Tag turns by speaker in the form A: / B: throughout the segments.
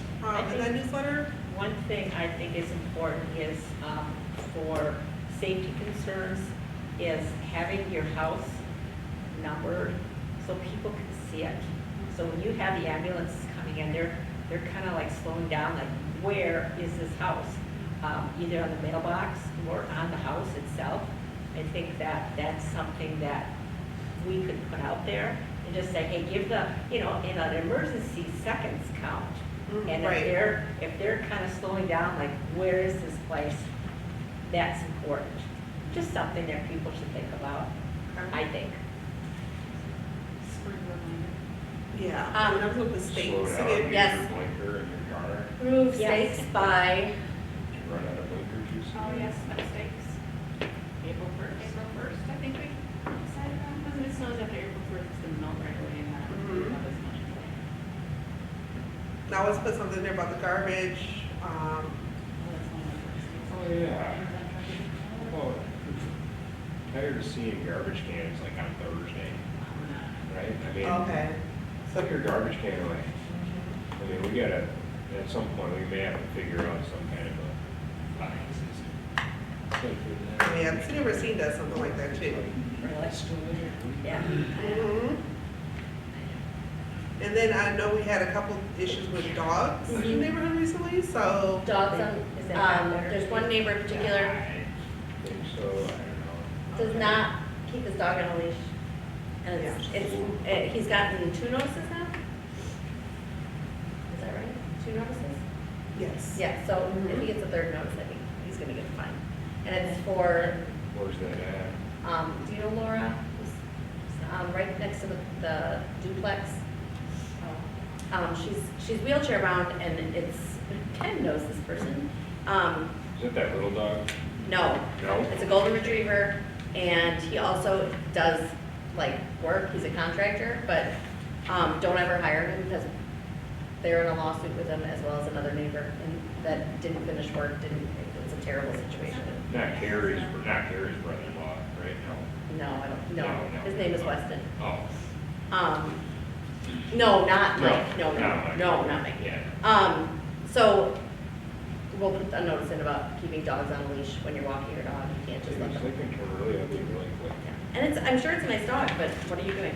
A: subscribe to Um, that newsletter?
B: One thing I think is important is, um, for safety concerns, is having your house numbered so people can see it. So when you have the ambulances coming in, they're, they're kind of like slowing down, like, where is this house? Um, either on the mailbox or on the house itself. I think that that's something that we could put out there and just say, hey, give the, you know, in an emergency, seconds count.
A: Mm,
B: And if
A: right.
B: they're, if they're kind of slowing down, like, where is this place? That's important. Just something that people should think about, I think.
A: Yeah,
C: Um,
A: and I'm with the state.
D: Slow down,
A: City of-
D: use your
C: yes.
D: blinker in your car,
C: Remove
B: Yes.
C: stakes by,
D: did you run out of blinker juice?
E: Oh, yes, mistakes. April first. April first, I think we decided on, Mm-hmm. because if it snows after April first, it's gonna melt right away and not,
A: Mhm.
E: not as much.
A: Now let's put something there about the garbage, um,
D: Oh, yeah. Well, Tired of seeing garbage cans like on Thursday,
E: Oh.
D: right? I mean,
A: okay.
D: put your garbage can away. I mean, we gotta, at some point, we may have to figure out some kind of a fine system.
A: Yeah, the city of Racine does something like that too.
B: Really? Yeah.
A: Mhm. And then I know we had a couple issues with dogs in the neighborhood recently, so,
C: dogs on,
B: Is that
C: um,
B: better?
C: there's one neighbor in particular
D: I think so, I don't know.
C: does not keep his dog on a leash. And it's, it's, eh, he's gotten two notices now? Is that right? Two notices?
A: yes.
C: Yeah, so if he gets a third notice, I think he's gonna get a fine. And it's for,
D: Where's that at?
C: um, do you know Laura? Who's, Um, right next to the, the duplex. Um, she's, she's wheelchair bound and it's, Ken knows this person. Um,
D: Is it that little dog?
C: no,
D: No?
C: It's a golden retriever, and he also does like work, he's a contractor, but, um, don't ever hire him because they're in a lawsuit with him as well as another neighbor and that didn't finish work, didn't, it's a terrible situation.
D: Not Carrie's, not Carrie's brother-in-law, right? No.
C: No, I don't, no, his name is Weston.
D: Oh.
C: Um, no, not
D: No,
C: Mike, Oh. no,
D: not
C: no,
D: Mike.
C: no, not Mike.
D: Yeah.
C: Um, so, we'll put a notice in about keeping dogs on a leash when you're walking your dog, you can't
D: They
C: just let
D: can
C: them.
D: turn really ugly really quick.
C: Yeah. And it's, I'm sure it's a nice dog, but what are you doing?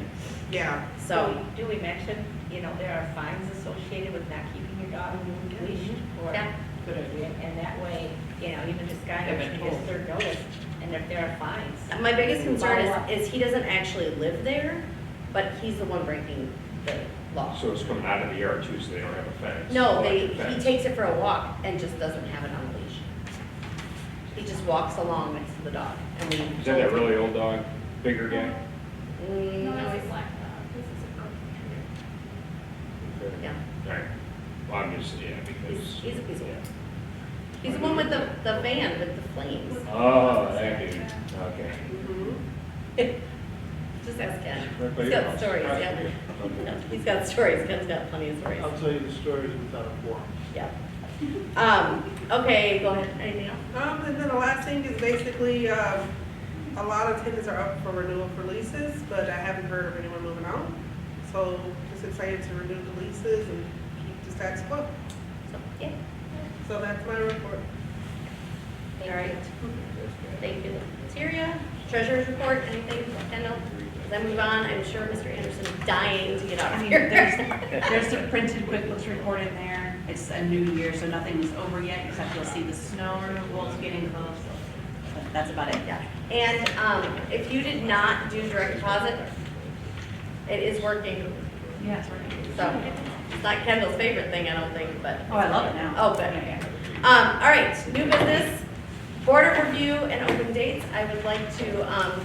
A: Yeah,
C: So,
B: Do we do we mention, you know, there are fines associated with not keeping your dog leashed or?
C: Mm-hmm. Yeah.
E: Good idea.
B: And and that way, you know, even this guy,
E: Have it
B: actually gets
E: pulled.
B: third notice, and if there are fines.
C: my biggest concern
B: Follow up.
C: is, is he doesn't actually live there, but he's the one breaking the law.
D: So it's coming out of the yard too, so they don't have a fence?
C: No, they,
D: electric
C: he
D: fence.
C: takes it for a walk and just doesn't have it on a leash. He just walks along next to the dog and we.
D: Is that that really old dog, bigger guy?
C: Mm,
E: No,
C: no,
E: that's a
C: he's-
E: black dog, this is a purple.
D: Okay.
C: Yeah,
D: Alright, well, I'm just, yeah, because.
C: he's, he's a piece of work. He's the one with the, the van with the flames.
D: Oh, that dude, okay.
C: Just ask Ken.
D: Right by
C: He's
D: your
C: got
D: house.
C: stories,
D: Right.
C: yeah.
D: Okay.
C: No, He's got stories, Ken's got plenty of stories,
F: I'll tell you the stories without a forum.
C: yeah. Um, okay, go ahead, anything else?
A: Um, and then the last thing is basically, um, a lot of tenants are up for renewal for leases, but I haven't heard of anyone moving out. So just excited to renew the leases and keep the status quo.
C: So, yeah,
A: So that's my report.
C: all right.
D: That's bad.
C: Thank you, Materia. Treasurer's report, anything, Kendall? As I move on, I'm sure Mr. Anderson is dying to get out
G: I
C: of
G: mean,
C: here.
G: there's, there's a printed QuickBooks report in there. It's a new year, so nothing is over yet, except you'll see the snow removal's getting close. But That's about it.
C: Yeah. And um, if you did not do direct deposit, it is working,
G: Yeah, it's working.
C: so it's not Kendall's favorite thing, I don't think, but,
G: Oh, I love it now.
C: oh, but.
G: Yeah, yeah.
C: Um, All right, new business, board review and open dates. I would like to um,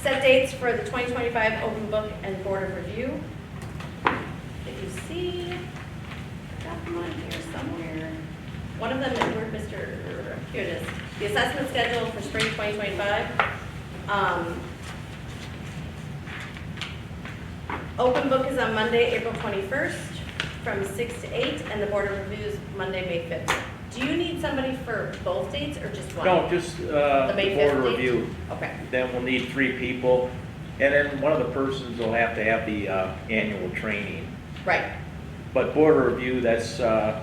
C: set dates for the 2025 open book and board of review. That you see, I've got them on here somewhere. One of them is where Mr., here it is, the assessment schedule for spring 2025. Um, Open book is on Monday, April 21st, from 6 to 8, and the board of review is Monday, May 5th. Do you need somebody for both dates or just one?
H: No, just, uh,
C: The May
H: board
C: 15th?
H: review,
C: Okay.
H: then we'll need three people, and then one of the persons will have to have the, uh, annual training.
C: Right.
H: But board review, that's, uh,